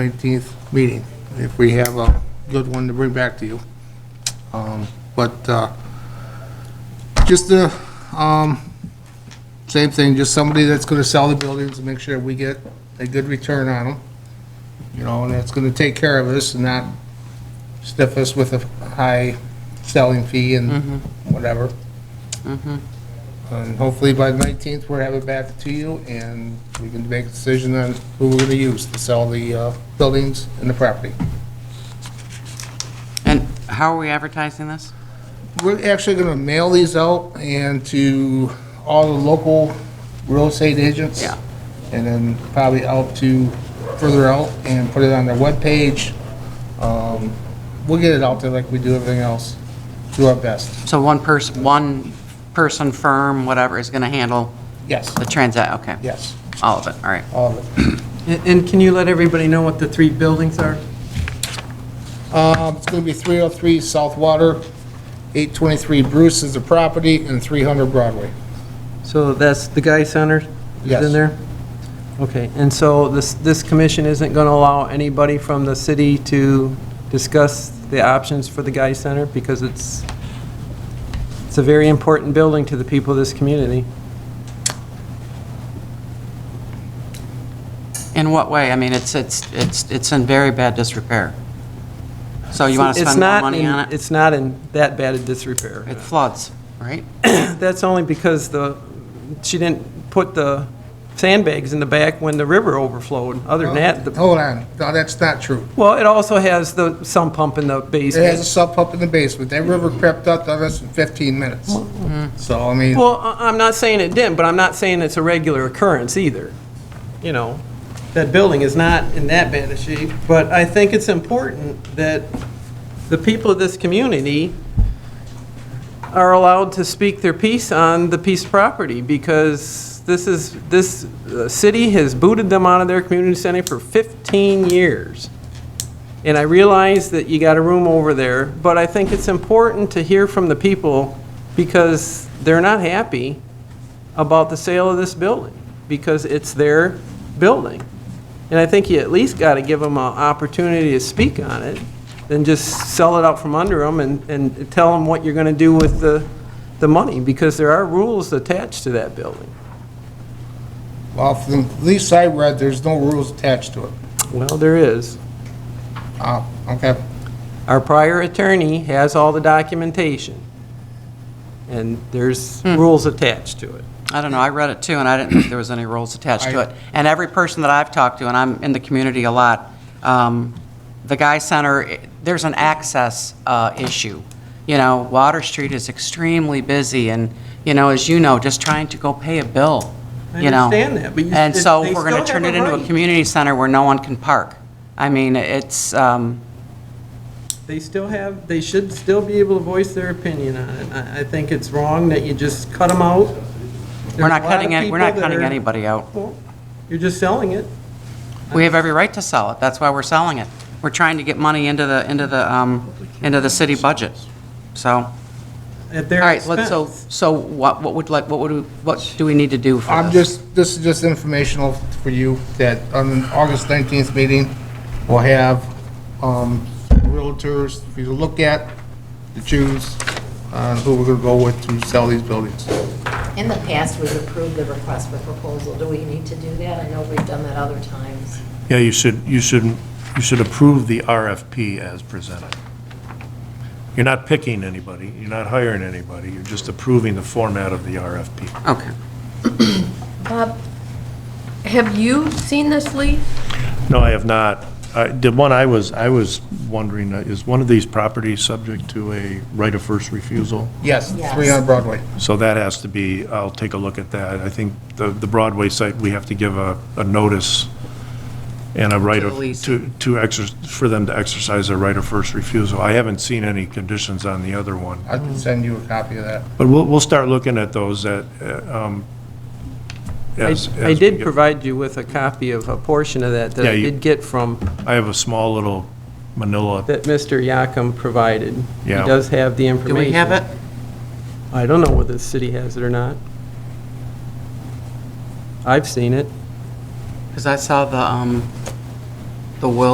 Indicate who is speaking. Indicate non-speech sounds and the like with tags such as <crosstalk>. Speaker 1: 19th meeting, if we have a good one to bring back to you. Um, But uh, just the, um, same thing, just somebody that's going to sell the buildings and make sure we get a good return on them, you know, and that's going to take care of us and not stiff us with a high selling fee and whatever. And hopefully by the 19th, we'll have it back to you, and we can make a decision on who we're going to use to sell the uh, buildings and the property.
Speaker 2: And how are we advertising this?
Speaker 1: We're actually going to mail these out and to all the local real estate agents.
Speaker 2: Yeah.
Speaker 1: And then probably out to further out and put it on their webpage. Um, We'll get it out there like we do everything else, do our best.
Speaker 2: So one person, one person, firm, whatever, is going to handle
Speaker 1: Yes,
Speaker 2: the transac, okay.
Speaker 1: yes,
Speaker 2: All of it, all right.
Speaker 1: all of it.
Speaker 3: And and can you let everybody know what the three buildings are?
Speaker 1: Um, It's going to be 303 South Water, 823 Bruce is the property, and 300 Broadway.
Speaker 3: So that's the Guy Center is
Speaker 1: Yes.
Speaker 3: in there? Okay, and so this, this commission isn't going to allow anybody from the city to discuss the options for the Guy Center because it's, it's a very important building to the people of this community.
Speaker 2: In what way? I mean, it's, it's, it's it's in very bad disrepair. So you want to
Speaker 3: It's
Speaker 2: spend more
Speaker 3: not
Speaker 2: money
Speaker 3: in-
Speaker 2: on it?
Speaker 3: It's not in that bad a disrepair.
Speaker 2: It floods, right?
Speaker 3: <laughs> That's only because the, she didn't put the sandbags in the back when the river overflowed. Other than that, the
Speaker 1: Hold on, no, that's not true.
Speaker 3: Well, it also has the sump pump in the
Speaker 1: It has a
Speaker 3: basement.
Speaker 1: sub pump in the basement. That river crept up on us in 15 minutes. So, I mean,
Speaker 3: Well, I- I'm not saying it didn't, but I'm not saying it's a regular occurrence either. You know, that building is not in that bad a shape, but I think it's important that the people of this community are allowed to speak their piece on the piece of property, because this is, this uh, city has booted them out of their community center for 15 years. And I realize that you got a room over there, but I think it's important to hear from the people because they're not happy about the sale of this building, because it's their building. And I think you at least got to give them an opportunity to speak on it, than just sell it out from under them and, and tell them what you're going to do with the, the money, because there are rules attached to that building.
Speaker 1: well, from the least I read, there's no rules attached to it.
Speaker 3: Well, there is.
Speaker 1: Oh, okay.
Speaker 3: Our prior attorney has all the documentation, and there's
Speaker 2: Hmm.
Speaker 3: rules attached to it.
Speaker 2: I don't know, I read it too, and I didn't think there was any rules attached to
Speaker 1: I-
Speaker 2: it. And every person that I've talked to, and I'm in the community a lot, um, the Guy Center, i- there's an access uh, issue. You know, Water Street is extremely busy, and, you know, as you know, just trying to go pay a bill,
Speaker 3: I
Speaker 2: you know?
Speaker 3: understand that, but you-
Speaker 2: And
Speaker 3: it's-
Speaker 2: so
Speaker 3: they
Speaker 2: if we're going to
Speaker 3: still
Speaker 2: turn
Speaker 3: have
Speaker 2: it
Speaker 3: a
Speaker 2: into a
Speaker 3: right.
Speaker 2: community center where no one can park. I mean, it's, um,
Speaker 3: They still have, they should still be able to voice their opinion on it. I, I think it's wrong that you just cut them out.
Speaker 2: we're not cutting, any- we're not cutting anybody out.
Speaker 3: You're just selling it.
Speaker 2: We have every right to sell it. That's why we're selling it. We're trying to get money into the, into the, um, into the city budget. So, all
Speaker 3: at their
Speaker 2: right, let's, so,
Speaker 3: expense.
Speaker 2: so what, what would like, what would, we- what do we need to do for this?
Speaker 1: I'm just, this is just informational for you, that on August 19th meeting, we'll have um, realtors for you to look at, to choose on who we're going to go with to sell these buildings.
Speaker 4: In the past, we've approved the request for proposal. Do we need to do that? I know we've done that other times.
Speaker 5: Yeah, you should, you should, you should approve the RFP as presented. You're not picking anybody, you're not hiring anybody, you're just approving the format of the RFP.
Speaker 2: Okay.
Speaker 6: Bob, have you seen this lease?
Speaker 5: No, I have not. I- The one I was, I was wondering, uh, is one of these properties subject to a right of first refusal?
Speaker 1: Yes,
Speaker 4: Yes.
Speaker 1: 300 Broadway.
Speaker 5: So that has to be, I'll take a look at that. I think the the Broadway site, we have to give a, a notice and a right
Speaker 2: To
Speaker 5: of,
Speaker 2: the lease.
Speaker 5: to, to exer, for them to exercise their right of first refusal. I haven't seen any conditions on the other one.
Speaker 1: I can send you a copy of that.
Speaker 5: But we'll, we'll start looking at those that, uh, um,
Speaker 3: I
Speaker 5: as.
Speaker 3: I
Speaker 5: as we
Speaker 3: did
Speaker 5: get-
Speaker 3: provide you with a copy of a portion of that that
Speaker 5: Yeah,
Speaker 3: I
Speaker 5: you-
Speaker 3: did get from,
Speaker 5: I have a small little manila.
Speaker 3: that Mr. Yakum provided.
Speaker 5: Yeah.
Speaker 3: He does have the
Speaker 2: Do
Speaker 3: information.
Speaker 2: we have it?
Speaker 3: I don't know whether the city has it or not. I've seen it.
Speaker 2: Because I saw the, um, the will